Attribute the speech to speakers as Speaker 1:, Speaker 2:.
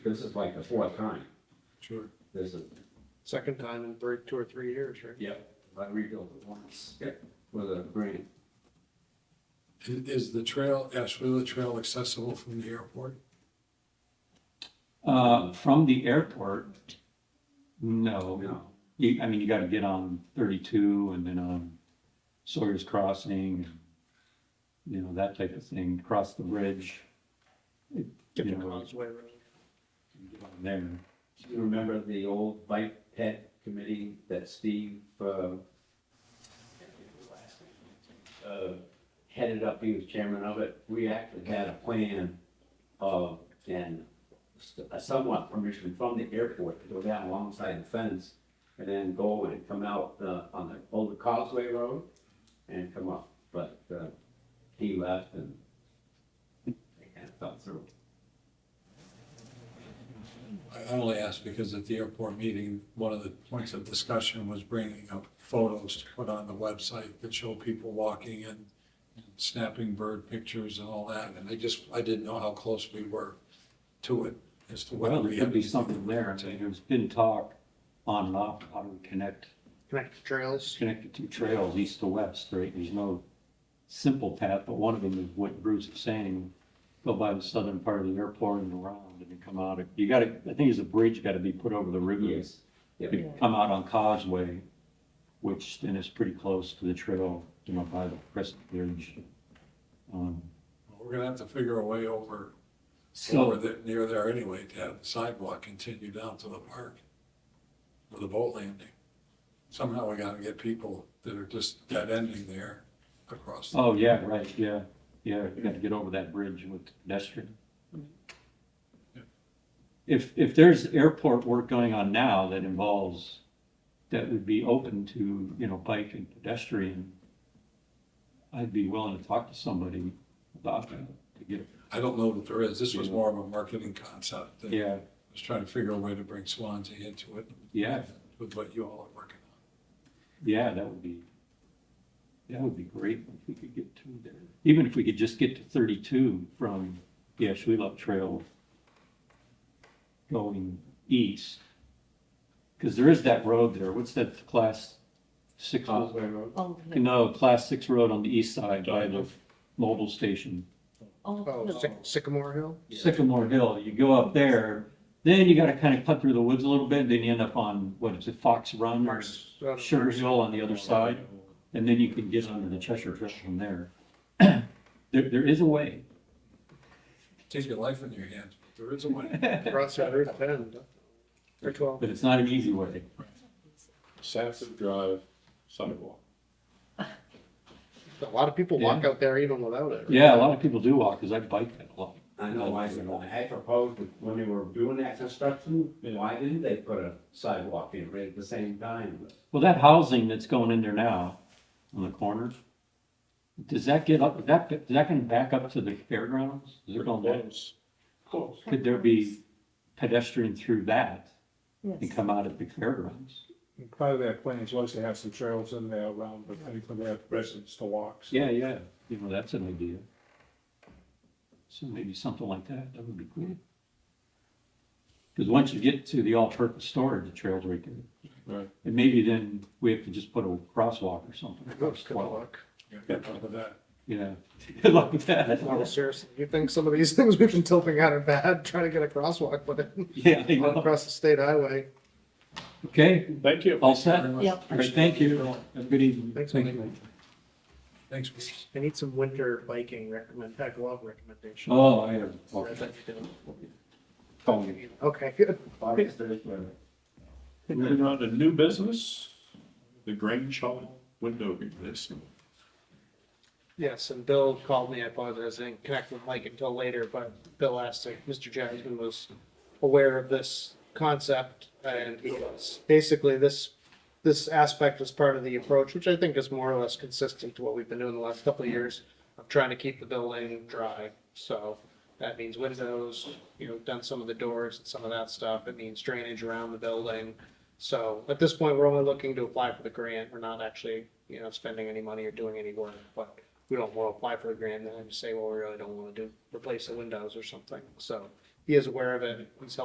Speaker 1: this is like the fourth time,
Speaker 2: Sure.
Speaker 1: this is.
Speaker 3: Second time in three, two or three years, right?
Speaker 1: Yep. I rebuilt it once. Yep. With a grant.
Speaker 2: And Is the trail, Ashwilla Trail accessible from the airport?
Speaker 4: Uh, from the airport, no.
Speaker 1: No,
Speaker 4: You, I mean, you gotta get on thirty-two and then on Sawyer's Crossing, you know, that type of thing, cross the bridge. It-
Speaker 3: Get
Speaker 4: You
Speaker 3: the
Speaker 4: know,
Speaker 3: Causeway Road.
Speaker 4: get on there.
Speaker 1: do you remember the old bike pet committee that Steve, uh, uh, headed up, he was chairman of it, we actually had a plan of, and a somewhat permission from the airport to go down alongside the fence and then go and come out, uh, on the old Causeway Road and come up, but, uh, he left and they kind of fell through.
Speaker 2: I I only ask because at the airport meeting, one of the points of discussion was bringing up photos to put on the website that show people walking and snapping bird pictures and all that, and I just, I didn't know how close we were to it as to whether
Speaker 4: Well,
Speaker 2: we
Speaker 4: there
Speaker 2: had.
Speaker 4: could be something there. I mean, there's been talk on and off, how do we connect
Speaker 3: Connect the trails.
Speaker 4: connected two trails, east to west, right? There's no simple path, but one of them is what Bruce is saying. Go by the southern part of the airport and around and you come out. You gotta, I think there's a bridge gotta be put over the river.
Speaker 1: Yes. Yep.
Speaker 4: You come out on Causeway, which then is pretty close to the trail, you know, by the Crescent Bridge. Um,
Speaker 2: We're gonna have to figure a way over, over
Speaker 4: So,
Speaker 2: there, near there anyway, to have the sidewalk continue down to the park with a boat landing. Somehow we gotta get people that are just dead ending there across. the-
Speaker 4: oh, yeah, right, yeah, yeah, you gotta get over that bridge with pedestrian. If, if there's airport work going on now that involves, that would be open to, you know, bike and pedestrian, I'd be willing to talk to somebody about that, to get,
Speaker 2: I don't know that there is. This was more of a marketing concept. that I
Speaker 4: yeah,
Speaker 2: was trying to figure a way to bring Swansea into it
Speaker 4: yeah,
Speaker 2: with what you all are working on.
Speaker 4: Yeah, that would be, that would be great if we could get to there. Even if we could just get to thirty-two from the Ashwellup Trail going east. Because there is that road there. What's that class six? road?
Speaker 1: Causeway Road.
Speaker 5: Oh, yeah.
Speaker 4: No, class six road on the east side by the mobile station.
Speaker 5: oh,
Speaker 3: Oh,
Speaker 5: no.
Speaker 3: Syc- Sycamore Hill.
Speaker 1: Yeah.
Speaker 4: Sycamore Hill, you go up there, then you gotta kind of cut through the woods a little bit, then you end up on, what is it, Fox Run?
Speaker 3: Uh,
Speaker 4: or Mm. Sugar Hill on the other side. And then you can get onto the Cheshire Trail from there. There, there is a way.
Speaker 2: Take your life in your hands. but There is a way.
Speaker 4: But
Speaker 3: Across at Earth Bend. Or twelve.
Speaker 4: it's not an easy way.
Speaker 6: Sanford Drive sidewalk.
Speaker 3: A lot of people walk out there even without it. right?
Speaker 4: Yeah, a lot of people do walk, because I bike that a lot.
Speaker 1: I know, I, I proposed that when they were doing that construction, why didn't they put a sidewalk in right at the same time? But
Speaker 4: Well, that housing that's going in there now, on the corner, does that get up, that, is that gonna back up to the fairgrounds? Is it going back?
Speaker 6: Close. Close.
Speaker 4: Could there be pedestrian through that and
Speaker 5: Yes.
Speaker 4: come out at the fairgrounds?
Speaker 7: Part of their plans was to have some trails in there around, but they could have residents to walk. so-
Speaker 4: Yeah, yeah, you know, that's an idea. So maybe something like that, that would be cool. Because once you get to the all-purpose storage, the trail's right there.
Speaker 6: Right.
Speaker 4: And maybe then we have to just put a crosswalk or something.
Speaker 3: Oops, Good luck.
Speaker 2: Remember that.
Speaker 4: Yeah, good luck with that.
Speaker 3: No, seriously, you think some of these things we've been tilting out are bad, trying to get a crosswalk put in,
Speaker 4: Yeah, I know.
Speaker 3: across the state highway.
Speaker 4: okay,
Speaker 6: Thank you.
Speaker 4: all set? All
Speaker 2: Very much.
Speaker 5: Yep.
Speaker 4: right, thank you. Have a good evening.
Speaker 3: Thanks,
Speaker 4: Thank
Speaker 3: Mike.
Speaker 4: you.
Speaker 2: Thanks, Bruce.
Speaker 3: I need some winter biking recommend, heck, love recommendation.
Speaker 4: Oh, I have.
Speaker 3: Okay, good.
Speaker 1: August third, whatever.
Speaker 6: Moving on to new business, the Grange Hall window replacement.
Speaker 3: Yes, and Bill called me, I apologize, I didn't connect with Mike until later, but Bill asked if Mr. Jasmine was aware of this concept, and he was. Basically, this, this aspect was part of the approach, which I think is more or less consistent to what we've been doing the last couple of years, of trying to keep the building dry, so that means windows, you know, done some of the doors and some of that stuff, it means drainage around the building. So at this point, we're only looking to apply for the grant, we're not actually, you know, spending any money or doing any work, but we don't want to apply for the grant, and then just say, well, we really don't want to do, replace the windows or something, so he is aware of it, he's helped